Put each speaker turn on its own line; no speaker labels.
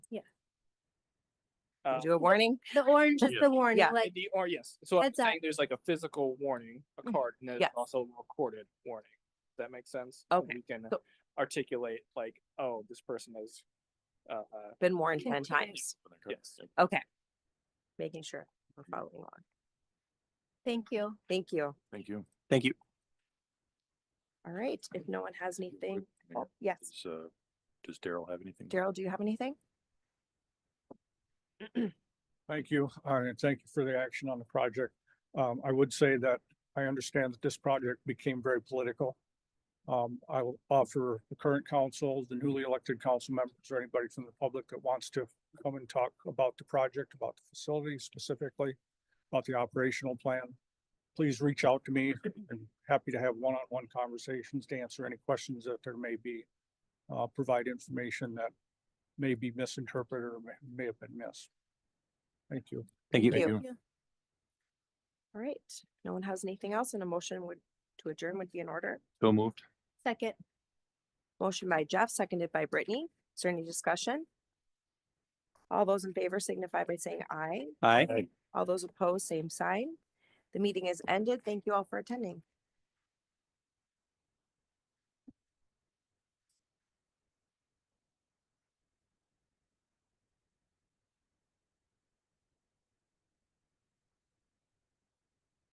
Uh,
Do a warning?
The orange is
Yeah.
the warning,
Yeah.
like,
The, or yes, so I'm
Heads up.
saying there's like a physical warning, a
Mhm.
card, and there's
Yes.
also a recorded warning. Does that make sense? So
Okay,
We can
so-
articulate like, oh, this person is, uh, uh,
Been warned
Can
ten
do it.
times.
yes.
Okay. Making sure we're following along.
thank you.
Thank you.
Thank you.
Thank you.
All right. If no one has anything,
Mayor,
oh, yes.
Does, uh, does Daryl have anything?
Daryl, do you have anything?
Thank you, uh, and thank you for the action on the project. Um, I would say that I understand that this project became very political. Um, I will offer the current council, the newly elected council members, or anybody from the public that wants to come and talk about the project, about the facility specifically, about the operational plan. Please reach out to me. I'm happy to have one-on-one conversations to answer any questions that there may be. Uh, provide information that may be misinterpreted or may- may have been missed. Thank you.
Thank you.
Thank you. All right. No one has anything else and a motion would, to adjourn would be in order.
So moved.
Second,
Motion by Jeff, seconded by Brittany. Is there any discussion? All those in favor signify by saying aye.
Aye.
All those opposed, same sign. The meeting is ended. Thank you all for attending.